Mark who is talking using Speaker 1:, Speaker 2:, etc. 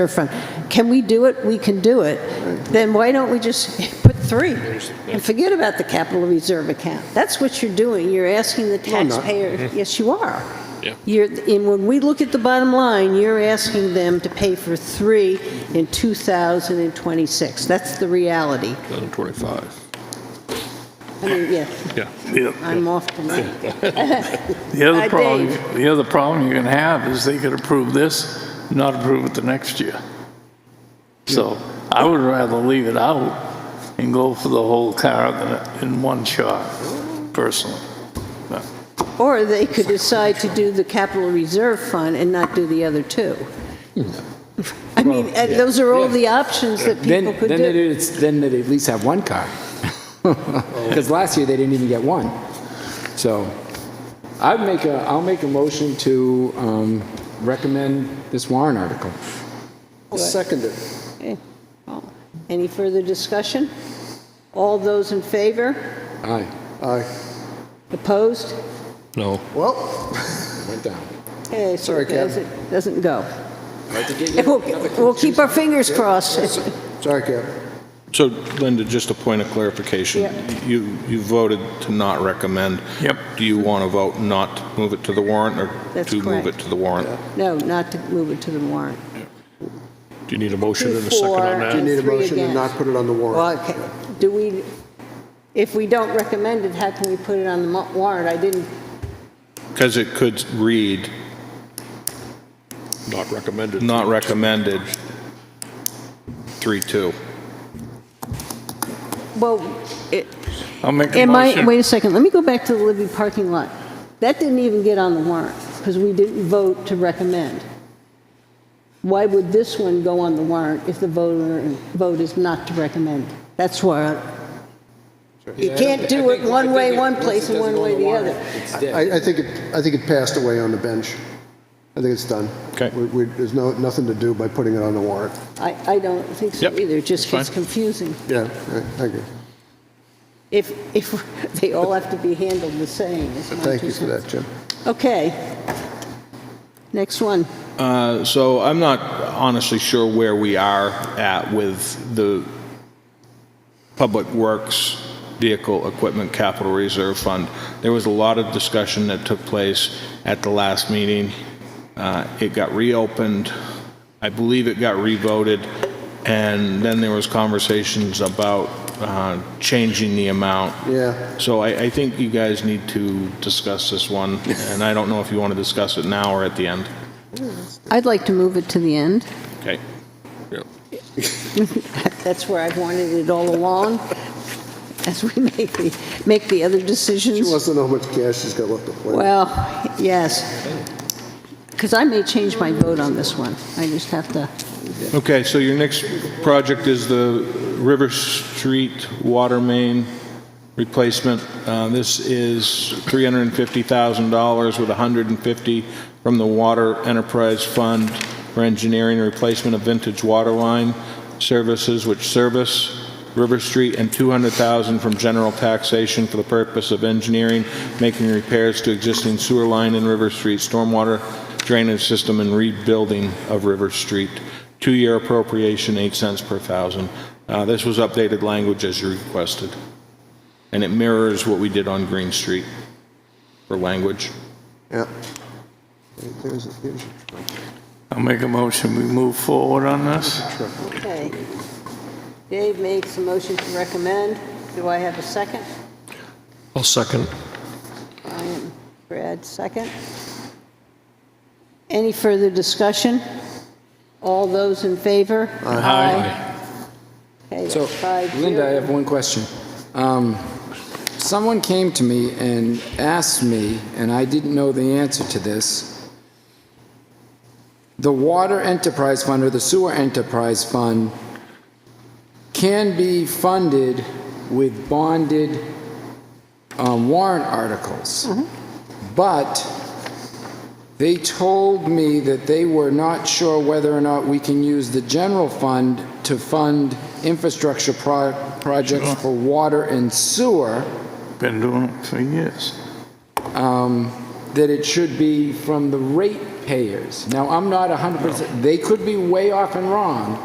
Speaker 1: they're from. Can we do it? We can do it. Then why don't we just put three and forget about the capital reserve account? That's what you're doing. You're asking the taxpayer,
Speaker 2: Mm-hmm.
Speaker 1: yes, you are.
Speaker 3: Yeah.
Speaker 1: You're, and when we look at the bottom line, you're asking them to pay for three in 2026. That's the reality.
Speaker 3: 2025.
Speaker 1: I mean, yeah,
Speaker 3: Yeah.
Speaker 4: The
Speaker 1: I'm off tonight.
Speaker 4: the
Speaker 1: Uh,
Speaker 4: other problem,
Speaker 1: Dave.
Speaker 4: the other problem you're going to have is they could approve this, not approve it the next year. So I would rather leave it out and go for the whole car than in one shot, personally. But
Speaker 1: Or they could decide to do the capital reserve fund and not do the other two.
Speaker 2: Hmm.
Speaker 1: I mean, uh, those are all the options that
Speaker 2: Then,
Speaker 1: people could
Speaker 2: then they'd,
Speaker 1: do.
Speaker 2: it's- then they'd at least have one car. Because last year, they didn't even get one. So I'd make a, I'll make a motion to um, recommend this warrant article.
Speaker 5: Second it.
Speaker 1: Okay. Any further discussion? All those in favor?
Speaker 2: Aye,
Speaker 5: Aye.
Speaker 1: Opposed?
Speaker 3: No.
Speaker 5: Well,
Speaker 2: went down.
Speaker 1: Okay, so
Speaker 5: Sorry,
Speaker 1: it
Speaker 5: Kevin.
Speaker 1: doesn't- doesn't go.
Speaker 2: Right to get you
Speaker 1: We'll
Speaker 2: another
Speaker 1: we'll keep our fingers crossed.
Speaker 5: sorry, Cap.
Speaker 3: So Linda, just a point of clarification.
Speaker 1: Yeah.
Speaker 3: You, you voted to not recommend.
Speaker 4: Yep.
Speaker 3: Do you want to vote not to move it to the warrant or
Speaker 1: That's
Speaker 3: to move
Speaker 1: correct.
Speaker 3: it to the warrant?
Speaker 1: No, not to move it to the warrant.
Speaker 3: Do you need a motion and a
Speaker 1: Two, four,
Speaker 3: second on
Speaker 5: Do you
Speaker 3: that?
Speaker 1: and-
Speaker 5: need a
Speaker 1: Three
Speaker 5: motion to
Speaker 1: again.
Speaker 5: not put it on the warrant?
Speaker 1: Well, okay, do we, if we don't recommend it, how can we put it on the mo- warrant? I didn't
Speaker 3: Because it could read,
Speaker 6: Not recommended.
Speaker 3: not recommended, 3-2.
Speaker 1: Well, it-
Speaker 4: I'll make a
Speaker 1: am I,
Speaker 4: motion.
Speaker 1: wait a second, let me go back to the Libby parking lot. That didn't even get on the warrant, because we didn't vote to recommend. Why would this one go on the warrant if the voter, vote is not to recommend? That's why, you can't do it one way one place and one way the other.
Speaker 5: I, I think, it- I think it passed away on the bench. I think it's done.
Speaker 3: Okay.
Speaker 5: We- we- There's no, nothing to do by putting it on the warrant.
Speaker 1: I, I don't think so
Speaker 3: Yep,
Speaker 1: either, it just gets
Speaker 3: that's fine.
Speaker 1: confusing.
Speaker 5: Yeah, right, thank you.
Speaker 1: If, if, they all have to be handled the same, is my
Speaker 5: Thank
Speaker 1: two
Speaker 5: you for
Speaker 1: cents.
Speaker 5: that, Jim.
Speaker 1: Okay. Next one.
Speaker 3: Uh, So I'm not honestly sure where we are at with the Public Works Vehicle Equipment Capital Reserve Fund. There was a lot of discussion that took place at the last meeting. Uh, It got reopened, I believe it got revoted, and then there was conversations about uh, changing the amount.
Speaker 5: Yeah.
Speaker 3: So I, I think you guys need to discuss this one, and I don't know if you want to discuss it now or at the end.
Speaker 1: I'd like to move it to the end.
Speaker 3: Okay.
Speaker 1: That's where I've wanted it all along, as we make the, make the other
Speaker 5: She
Speaker 1: decisions.
Speaker 5: wants to know how much cash she's got left to play.
Speaker 1: Well, yes. Because I may change my vote on this one. I just have to,
Speaker 3: Okay, so your next project is the River Street Water Main replacement. Uh, This is $350,000 with 150 from the Water Enterprise Fund for engineering and replacement of vintage water line services which service River Street, and 200,000 from general taxation for the purpose of engineering, making repairs to existing sewer line in River Street, stormwater drainage system, and rebuilding of River Street. Two-year appropriation, 8 cents per thousand. Uh, This was updated language as you requested, and it mirrors what we did on Green Street for language.
Speaker 5: Yeah. There's a- there's a-
Speaker 4: I'll make a motion, we move forward on this.
Speaker 1: okay. Dave makes a motion to recommend. Do I have a second?
Speaker 6: I'll second.
Speaker 1: Brian, Brad, second. Any further discussion? All those in favor? Aye. Okay,
Speaker 2: So,
Speaker 1: that's five
Speaker 2: Linda, I
Speaker 1: zero.
Speaker 2: have one question. Um, Someone came to me and asked me, and I didn't know the answer to this. The water enterprise fund or the sewer enterprise fund can be funded with bonded um, warrant articles. But they told me that they were not sure whether or not we can use the general fund to fund infrastructure pro- projects for water and sewer,
Speaker 4: Been doing it for years.
Speaker 2: that it should be from the rate ratepayers. Now, I'm not 100%, they could be way off and wrong,